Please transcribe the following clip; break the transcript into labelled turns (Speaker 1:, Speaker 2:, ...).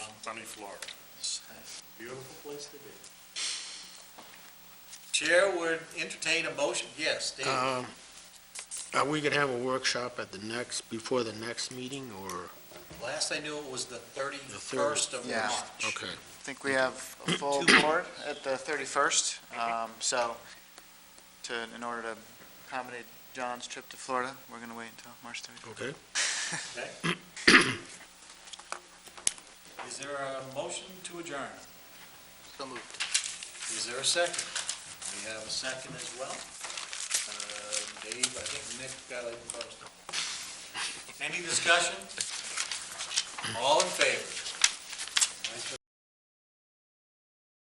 Speaker 1: sunny Florida. Beautiful place to be.
Speaker 2: Chair would entertain a motion, yes, Dave.
Speaker 3: Um, Are we going to have a workshop at the next, before the next meeting, or,
Speaker 2: Last I knew it was the 31st of
Speaker 4: Yeah.
Speaker 2: March.
Speaker 3: okay,
Speaker 4: I think we have a full board at the 31st, um, so to, in order to accommodate John's trip to Florida, we're going to wait until March 31st.
Speaker 3: okay?
Speaker 2: Is there a motion to adjourn?
Speaker 4: So moved.
Speaker 2: Is there a second? We have a second as well. Uh, Dave, I think Nick got it first. Any discussion? All in favor?